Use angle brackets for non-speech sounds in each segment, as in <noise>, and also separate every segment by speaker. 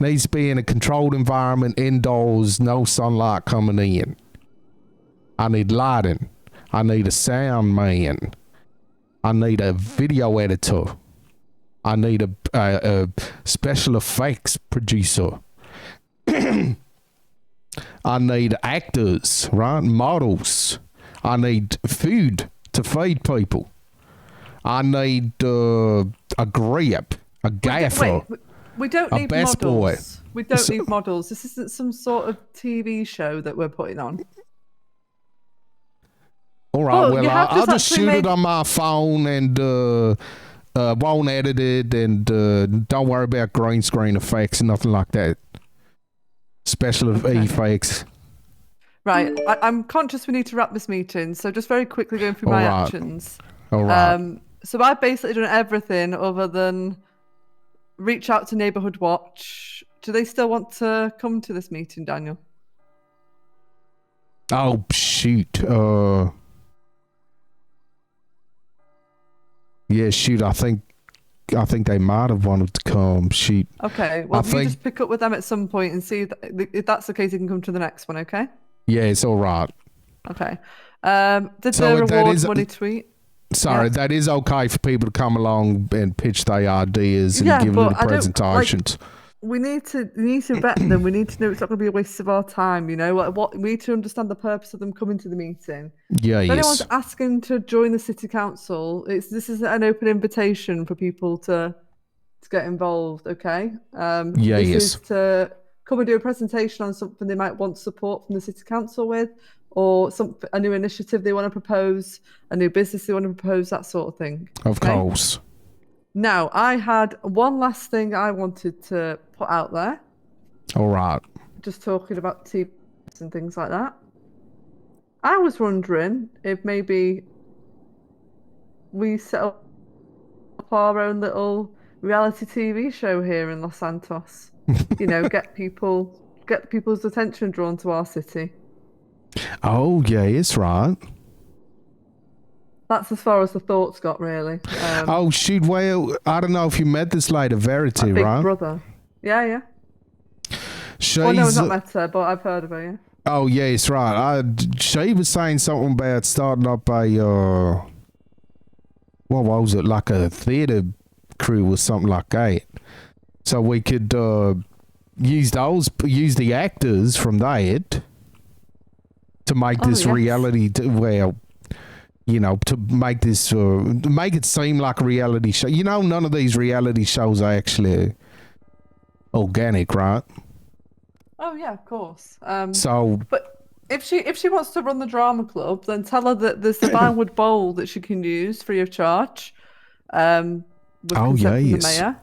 Speaker 1: Needs to be in a controlled environment, indoors, no sunlight coming in. I need lighting. I need a sound man. I need a video editor. I need a, a, a special effects producer. <clears throat> I need actors, right? Models. I need food to feed people. I need uh, a grip, a gaffer.
Speaker 2: Wait, we- we don't
Speaker 1: A
Speaker 2: need
Speaker 1: best boy.
Speaker 2: models. We don't
Speaker 1: So-
Speaker 2: need models. This isn't some sort of TV show that we're putting on.
Speaker 1: All right,
Speaker 2: Oh,
Speaker 1: well,
Speaker 2: you
Speaker 1: I,
Speaker 2: have
Speaker 1: I'll
Speaker 2: just
Speaker 1: just
Speaker 2: actually
Speaker 1: shoot it
Speaker 2: made-
Speaker 1: on my phone and uh, uh, won't edit it and uh, don't worry about green screen effects and nothing like that. Special
Speaker 2: <laughs>
Speaker 1: e-, effects.
Speaker 2: Right. I, I'm conscious we need to wrap this meeting, so just very quickly going through my
Speaker 1: All right.
Speaker 2: actions.
Speaker 1: All right.
Speaker 2: Um, so I've basically done everything other than reach out to Neighbourhood Watch. Do they still want to come to this meeting, Daniel?
Speaker 1: oh, shoot. Uh, yeah, shoot. I think I think they might have wanted to come. Shoot.
Speaker 2: Okay. Well,
Speaker 1: I
Speaker 2: you
Speaker 1: think-
Speaker 2: just pick up with them at some point and see if, if that's the case. You can come to the next one. Okay.
Speaker 1: Yeah, it's all right.
Speaker 2: Okay. Um, did
Speaker 1: So
Speaker 2: the
Speaker 1: that
Speaker 2: reward
Speaker 1: is-
Speaker 2: money tweet?
Speaker 1: Sorry,
Speaker 2: Yeah.
Speaker 1: that is okay for people to come along and pitch their ideas and
Speaker 2: Yeah,
Speaker 1: give
Speaker 2: but
Speaker 1: them
Speaker 2: I
Speaker 1: the
Speaker 2: don't- like-
Speaker 1: presentations.
Speaker 2: we need to we need to vet them. We need to know it's not going to be a waste of our time. You know, like what we need to understand the purpose of them coming to the meeting.
Speaker 1: yeah,
Speaker 2: If anyone's
Speaker 1: yes.
Speaker 2: asking to join the city council, it's this is an open invitation for people to to get involved. Okay. Um,
Speaker 1: Yeah,
Speaker 2: this
Speaker 1: yes.
Speaker 2: is to come and do a presentation on something they might want support from the city council with, or some a new initiative they want to propose, a new business they want to propose, that sort of thing.
Speaker 1: Of
Speaker 2: okay?
Speaker 1: course.
Speaker 2: Now, I had one last thing I wanted to put out there.
Speaker 1: All right.
Speaker 2: just talking about TV and things like that. I was wondering if maybe we set up our own little reality TV show here in Los Santos. you know, get people get people's attention drawn to our city.
Speaker 1: Oh, yeah, it's right.
Speaker 2: That's as far as the thoughts got, really.
Speaker 1: <laughs>
Speaker 2: Um,
Speaker 1: Oh, shoot. Well, I don't know if you met this lady, Verity,
Speaker 2: Big
Speaker 1: right?
Speaker 2: Brother. Yeah, yeah.
Speaker 1: She's,
Speaker 2: Well, Oh, no, not met her, but I've heard of her. Yeah.
Speaker 1: oh, yeah, it's right. I, she was saying something about starting up a, uh, what was it, like a theater crew or something like that. So we could uh, use those, use the actors from that to make
Speaker 2: Oh,
Speaker 1: this
Speaker 2: yes.
Speaker 1: reality, t well, you know, to make this, uh, make it seem like a reality show. You know, none of these reality shows are actually organic, right?
Speaker 2: Oh yeah, of course. Um,
Speaker 1: So,
Speaker 2: But if she if she wants to run the drama club, then tell her that there's the Vinewood Bowl that she can use free of charge. Um, with
Speaker 1: Oh,
Speaker 2: consent from
Speaker 1: yes.
Speaker 2: the mayor.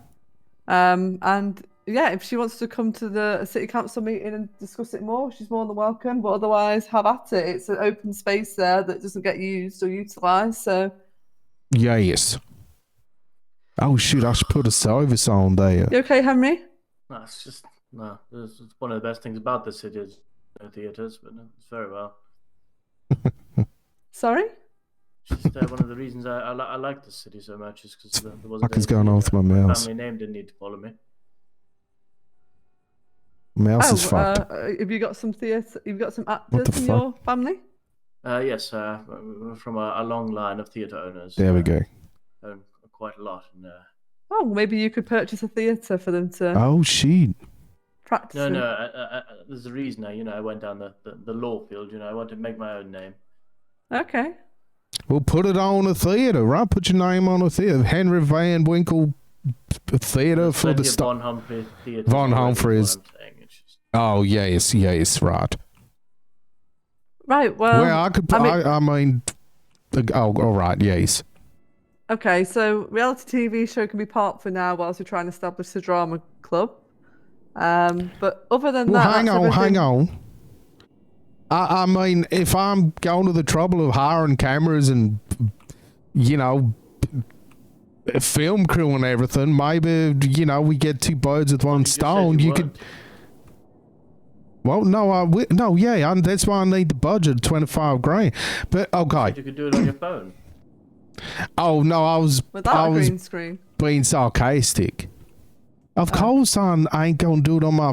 Speaker 2: Um, and yeah, if she wants to come to the city council meeting and discuss it more, she's more than welcome. But otherwise, have at it. It's an open space there that doesn't get used or utilised. So
Speaker 1: yes. Oh, shoot, I should put a service on there.
Speaker 2: you okay, Henry?
Speaker 3: No, it's just no. It's, it's one of the best things about the city is no theaters, but no, it's very well.
Speaker 2: Sorry.
Speaker 3: It's just uh, one of the reasons I I, li- I like the city so much is because there wasn't.
Speaker 1: Fucking's
Speaker 3: any
Speaker 1: going on with my
Speaker 3: theatre.
Speaker 1: mouse.
Speaker 3: Family name didn't need to follow me.
Speaker 1: Mouse is
Speaker 2: oh,
Speaker 1: fucked.
Speaker 2: uh, have you got some theatre? You've got some actors
Speaker 1: the fuck?
Speaker 2: in your family?
Speaker 3: Uh, yes, uh, from a, a long line of theatre owners.
Speaker 1: there we
Speaker 3: uh,
Speaker 1: go.
Speaker 3: Own quite a lot, and uh,
Speaker 2: Oh, maybe you could purchase a theatre for them to
Speaker 1: Oh, shoot.
Speaker 2: practice.
Speaker 3: No,
Speaker 2: in.
Speaker 3: no. I, I, I, there's a reason. I, you know, I went down the, the, the law field. You know, I wanted to make my own name.
Speaker 2: Okay.
Speaker 1: Well, put it on a theater, right? Put your name on a theater. Henry Van Winkle uh, Theater for the
Speaker 3: Plenty of
Speaker 1: Star.
Speaker 3: Von Humphrey Theatre.
Speaker 1: Von
Speaker 3: already, is what
Speaker 1: Humphrey's-
Speaker 3: I'm saying. It's just-
Speaker 1: Oh, yes, yes, right.
Speaker 2: Right. Well,
Speaker 1: well, I could.
Speaker 2: Um, I
Speaker 1: I
Speaker 2: mean-
Speaker 1: mean, I, mean oh, all right, yes.
Speaker 2: okay. So reality TV show can be parked for now whilst we try and establish the drama club. Um, but other than
Speaker 1: Well,
Speaker 2: that,
Speaker 1: hang
Speaker 2: that's
Speaker 1: on, hang
Speaker 2: everything.
Speaker 1: on. I, I mean, if I'm going to the trouble of hiring cameras and, you know, film crew and everything, maybe, you know, we get two birds with one
Speaker 3: You just said
Speaker 1: stone. You could.
Speaker 3: weren't.
Speaker 1: Well, no, I wi- no, yeah, I, that's why I need the budget, twenty five grand. But okay,
Speaker 3: You could do it on your phone.
Speaker 1: oh no, I was,
Speaker 2: Without
Speaker 1: I
Speaker 2: a
Speaker 1: was
Speaker 2: green screen.
Speaker 1: being sarcastic. Of course, I'm, I ain't gonna do it on my